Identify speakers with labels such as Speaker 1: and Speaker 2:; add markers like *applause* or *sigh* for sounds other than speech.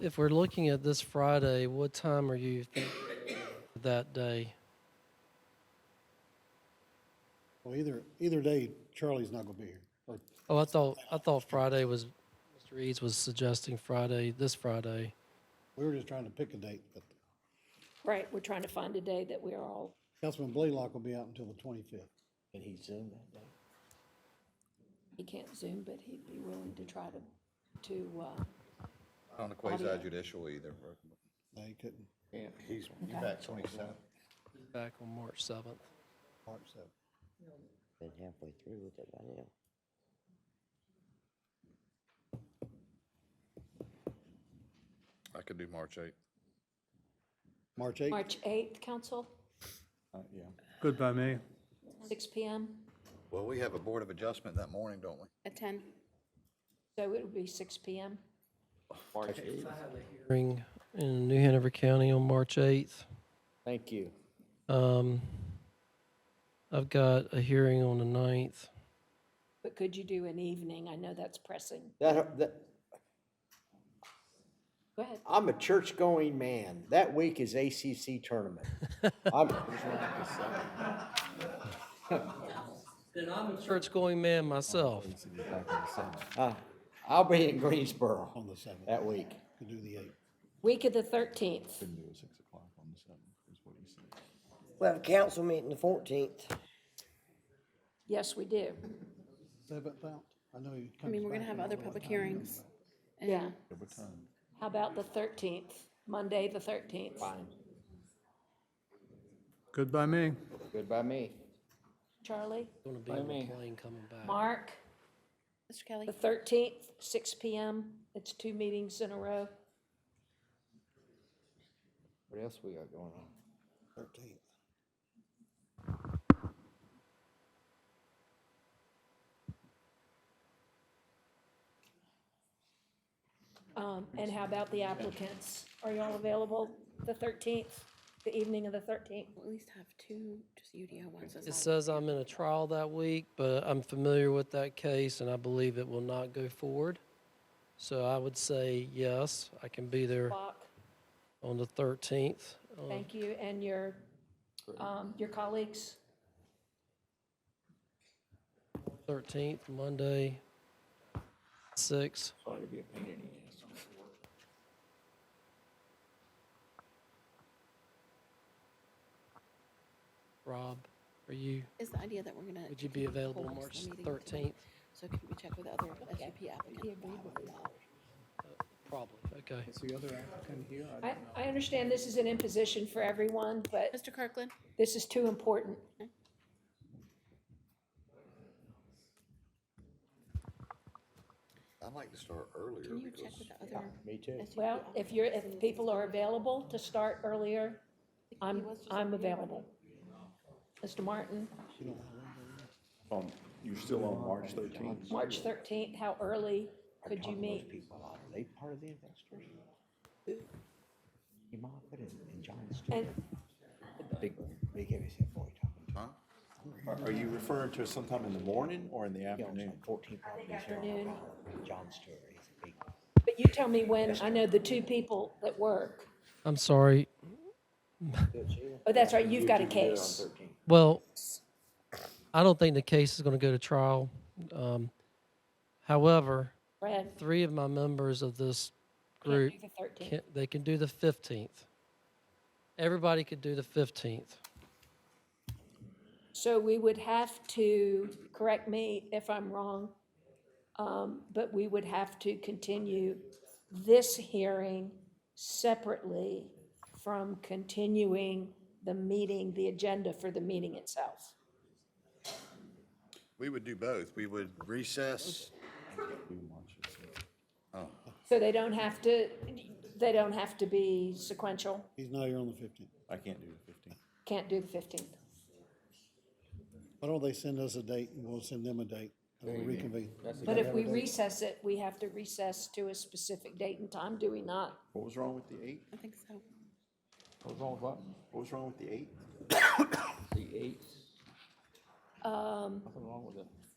Speaker 1: if we're looking at this Friday, what time are you thinking that day?
Speaker 2: Well, either, either day, Charlie's not gonna be here, or,
Speaker 1: Oh, I thought, I thought Friday was, Mr. Eads was suggesting Friday, this Friday.
Speaker 2: we were just trying to pick a date, but
Speaker 3: Right, we're trying to find a day that we're all,
Speaker 2: Councilman Blaylock will be out until the twenty-fifth.
Speaker 4: And he's Zoom that day.
Speaker 3: he can't Zoom, but he'd be willing to try to, to, uh,
Speaker 5: On the quasi judicial either.
Speaker 2: They couldn't,
Speaker 4: Yeah.
Speaker 5: He's back twenty-seven.
Speaker 1: Back on March 7th.
Speaker 2: March seventh.
Speaker 4: Been halfway through with it by now.
Speaker 5: I could do March eighth.
Speaker 2: March eighth,
Speaker 3: March 8th, council,
Speaker 6: Good by me.
Speaker 3: six PM.
Speaker 5: Well, we have a board of adjustment that morning, don't we?
Speaker 7: At 10?
Speaker 3: So it would be six PM.
Speaker 4: March eighth.
Speaker 1: Hearing in New Hanover County on March 8th.
Speaker 4: Thank you.
Speaker 1: Um, I've got a hearing on the 9th.
Speaker 3: But could you do an evening? I know that's pressing.
Speaker 4: That, that,
Speaker 3: Go ahead.
Speaker 4: I'm a church-going man. That week is ACC *laughs* tournament. I'm,
Speaker 1: Then I'm a church-going man myself.
Speaker 4: uh, I'll be in Greensboro
Speaker 2: on the seventh,
Speaker 4: that week.
Speaker 2: could do the eighth.
Speaker 3: Week of the 13th.
Speaker 8: We have a council meeting the fourteenth.
Speaker 3: Yes, we do.
Speaker 2: Seventh out, I know he comes
Speaker 7: I mean, we're going to
Speaker 2: back
Speaker 7: have
Speaker 2: in
Speaker 7: other
Speaker 2: about
Speaker 7: public
Speaker 2: time.
Speaker 7: hearings. and-
Speaker 3: Yeah. How about the 13th? Monday, the 13th?
Speaker 6: Good by me.
Speaker 4: Good by me.
Speaker 3: Charlie,
Speaker 1: Going to be on a plane coming back.
Speaker 3: Mark,
Speaker 7: Mr. Kelly?
Speaker 3: the 13th, six PM. It's two meetings in a row.
Speaker 4: What else we got going on?
Speaker 2: Thirteenth,
Speaker 3: Um, and how about the applicants? Are y'all available the thirteenth, the evening of the thirteenth?
Speaker 7: We'll at least have two, just UDO ones.
Speaker 1: It
Speaker 7: that's not-
Speaker 1: says I'm in a trial that week, but I'm familiar with that case and I believe it will not go forward. So I would say yes, I can be there
Speaker 3: Block,
Speaker 1: on the 13th. Uh,
Speaker 3: thank you, and your, um, your colleagues?
Speaker 1: 13th, Monday, 6. Rob, are you,
Speaker 7: Is the idea that we're going to.
Speaker 1: would you be available March 13th?
Speaker 7: So can we check with other SUP applicants?
Speaker 1: Probably, okay.
Speaker 3: I, I understand this is an imposition for everyone, but
Speaker 7: Mr. Kirkland?
Speaker 3: this is too important.
Speaker 5: I'd like to start earlier
Speaker 7: Can you
Speaker 5: because
Speaker 7: check with the other?
Speaker 4: Me too.
Speaker 7: SUP
Speaker 3: Well, if you're, if people are available to start earlier, I'm, I'm available. Mr. Martin,
Speaker 9: Um, you're still on March thirteenth?
Speaker 3: March thirteenth, how early could you meet?
Speaker 4: Are they part of the investors? Your mom put in, in John's.
Speaker 3: And
Speaker 4: Big, big, heavy set boy talking to.
Speaker 9: Are are you referring to sometime in the morning or in the
Speaker 4: He owns
Speaker 9: afternoon?
Speaker 4: like fourteen properties here in
Speaker 3: afternoon.
Speaker 4: Ohio. John Stewart, he's a big.
Speaker 3: But you tell me when, I know the two people that work.
Speaker 1: I'm sorry.
Speaker 3: Oh, that's right, you've got a case.
Speaker 1: Well, I don't think the case is going to go to trial. Um, However,
Speaker 3: Brad,
Speaker 1: three of my members of this
Speaker 3: can't
Speaker 1: group
Speaker 3: do the thirteenth.
Speaker 1: can, they can do the 15th. Everybody could do the 15th.
Speaker 3: So we would have to, correct me if I'm wrong, um, but we would have to continue this hearing separately from continuing the meeting, the agenda for the meeting itself.
Speaker 5: we would do both. We would recess.
Speaker 3: So they don't have to, they don't have to be sequential,
Speaker 2: he's not here on the fifteenth.
Speaker 9: I can't do the fifteenth.
Speaker 3: can't do the fifteenth.
Speaker 2: Why don't they send us a date, and we'll send them a date, and we'll reconvene.
Speaker 3: But if we recess it, we have to recess to a specific date and time, do we not?
Speaker 9: What was wrong with the eighth?
Speaker 7: I think so.
Speaker 4: What was wrong with what?
Speaker 9: What was wrong with the eighth?
Speaker 4: The eighth?
Speaker 3: Um,
Speaker 4: Nothing wrong with it.